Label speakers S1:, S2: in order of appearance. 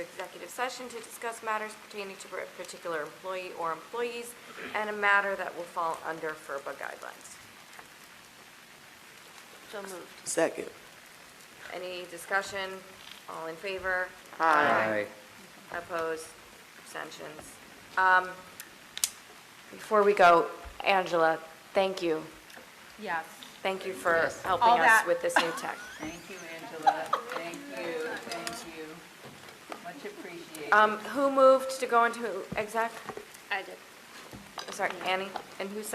S1: executive session to discuss matters pertaining to a particular employee or employees and a matter that will fall under FERPA guidelines.
S2: So moved.
S3: Second.
S1: Any discussion? All in favor? Opposed? Abstentions? Um, Before we go, Angela, thank you.
S2: Yes.
S1: Thank you for
S2: All
S1: helping us
S2: that-
S1: with this new tech.
S2: Thank you, Angela. Thank you, thank you. Much appreciated.
S1: Um, Who moved to go into exec?
S4: I did.
S1: Sorry, Annie? And who